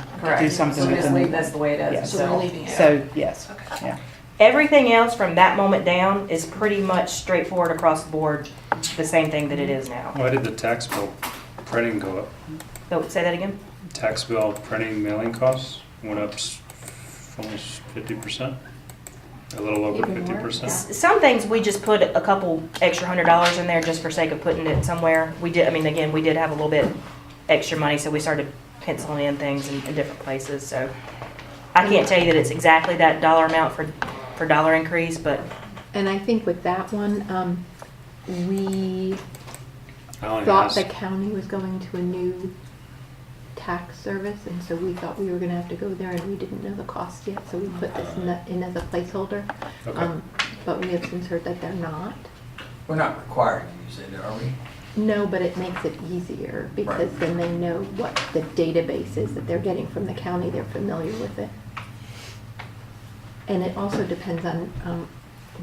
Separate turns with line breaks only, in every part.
do
Correct.
something
So we
with
just leave
them.
this the way it
Yeah,
is.
So we're leaving it.
So, yes,
Okay.
yeah.
Everything else from that moment down is pretty much straightforward across the board, the same thing that it is now.
Why did the tax bill printing go up?
So, say that again?
Tax bill printing mailing costs went up s- almost fifty percent? A little over
Even
fifty
more?
percent?
S- Some things, we just put a couple extra hundred dollars in there just for sake of putting it somewhere. We did, I mean, again, we did have a little bit extra money, so we started penciling in things in, in different places, so. I can't tell you that it's exactly that dollar amount for, for dollar increase, but
And I think with that one, um, we
I only
thought
asked,
the county was going to a new tax service, and so we thought we were gonna have to go there, and we didn't know the cost yet, so we put this in the- in as a placeholder.
okay,
Um, But we have since heard that they're not.
We're not required to use it, are we?
No, but it makes it easier, because
Right.
then they know what the database is that they're getting from the county, they're familiar with it. And it also depends on um,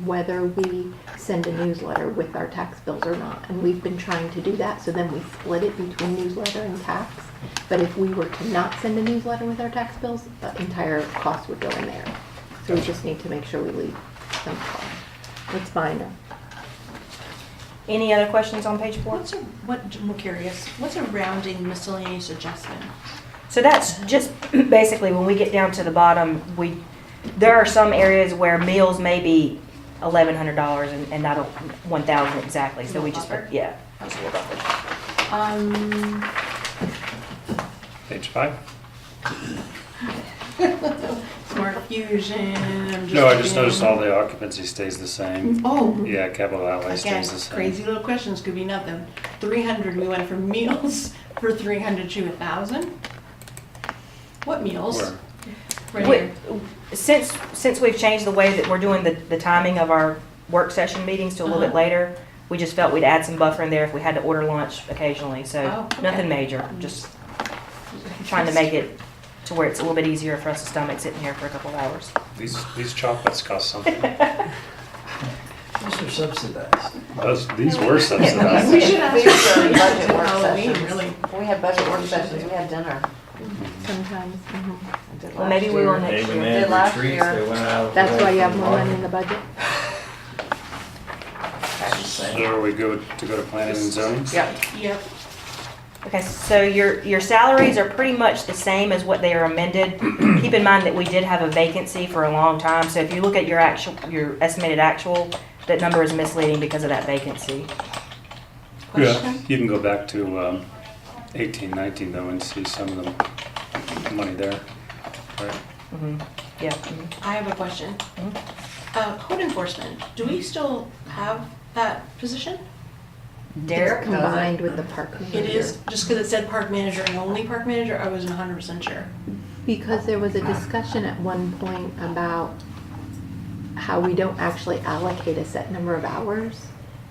whether we send a newsletter with our tax bills or not, and we've been trying to do that, so then we split it between newsletter and tax. But if we were to not send a newsletter with our tax bills, the entire cost would go in there. So we just need to make sure we leave some cost. It's minor.
any other questions on page four?
What's a, what, I'm curious, what's a rounding miscellaneous adjustment?
So that's just basically when we get down to the bottom, we, there are some areas where meals may be eleven hundred dollars and, and not one thousand exactly, so we just,
Buffer.
yeah. that's a little buffer.
Um,
page five?
smart fusion, I'm just.
No, I just
looking.
noticed all the occupancy stays the same.
Oh,
Yeah, capital outlay
again,
stays the same.
crazy little questions, could be nothing. Three hundred, we went from meals for three hundred to a thousand? What meals?
Where?
Right
We-
here.
Since, since we've changed the way that we're doing the, the timing of our work session meetings to a little bit
Uh-huh.
later, we just felt we'd add some buffer in there if we had to order lunch occasionally, so
Oh, okay.
nothing major, just trying to make it to where it's a little bit easier for us to stomach sitting here for a couple of hours.
These, these chocolates cost something.
Those are subsidized.
Those, these were
We
subsidized.
should have.
We should have budget work
Halloween,
sessions.
really.
We had budget work sessions, we had dinner.
Sometimes, mhm.
I did
Well, maybe
last
we will
year.
next
They
year.
went in
Did last
retreats,
year.
they went out.
That's why you have more money in the budget.
So are we good to go to planning and zoning?
Yep,
Yep,
Okay, so your, your salaries are pretty much the same as what they are amended. Keep in mind that we did have a vacancy for a long time, so if you look at your actual, your estimated actual, that number is misleading because of that vacancy.
Yeah,
question?
you can go back to um, eighteen, nineteen though and see some of the money there. Right.
Mhm, Yeah. mhm.
I have a question.
Mhm.
Uh, code enforcement, do we still have that position?
Derek?
does it.
Combined with the park manager.
It is, just because it said park manager and only park manager, I wasn't hundred percent sure.
Because there was a discussion at one point about how we don't actually allocate a set number of hours.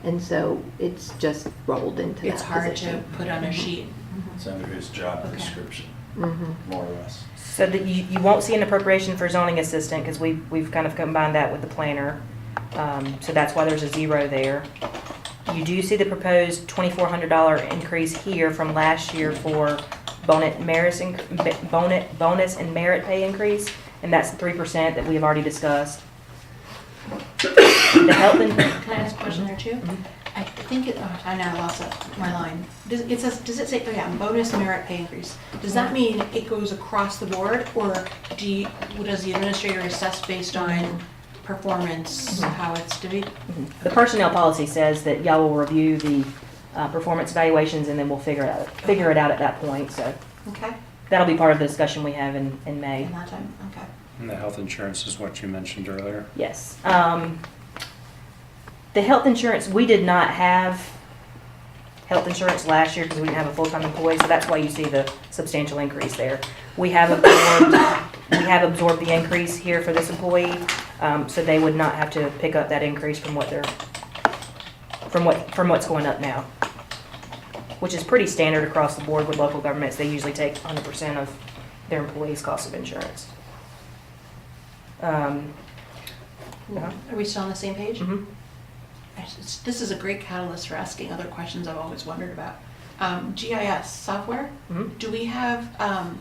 And so it's just rolled into that
It's Mm-hmm. hard to
position.
put on a sheet.
It's under his job
Okay.
description,
Mhm.
more or less.
So that you, you won't see an appropriation for zoning assistant, because we, we've kind of combined that with the planner. Um, so that's why there's a zero there. You do see the proposed twenty-four hundred dollar increase here from last year for bonus merits, inc- bonus, bonus and merit pay increase, and that's the three percent that we have already discussed. The health and,
Can I ask a question there too? I think it, oh, I now lost it- my line. Does, it says, does it say, oh yeah, bonus merit pay increase? Does that mean it goes across the board or do you, does the administrator assess based on performance, how it's divvied?
the personnel policy says that y'all will review the, uh, performance evaluations, and then we'll figure it out, figure it out at that point, so.
Okay,
That'll be part of the discussion we have in, in May.
in that time, okay.
And the health insurance is what you mentioned earlier.
Yes. Um, the health insurance, we did not have health insurance last year because we didn't have a full-time employee, so that's why you see the substantial increase there. We have absorbed, we have absorbed the increase here for this employee, um, so they would not have to pick up that increase from what they're, from what, from what's going up now. Which is pretty standard across the board with local governments. They usually take hundred percent of their employees' cost of insurance. Um, Yeah.
Are we still on the same page?
mhm.
I s- This is a great catalyst for asking other questions I've always wondered about. Um, GIS software,
Mhm.
do we have um,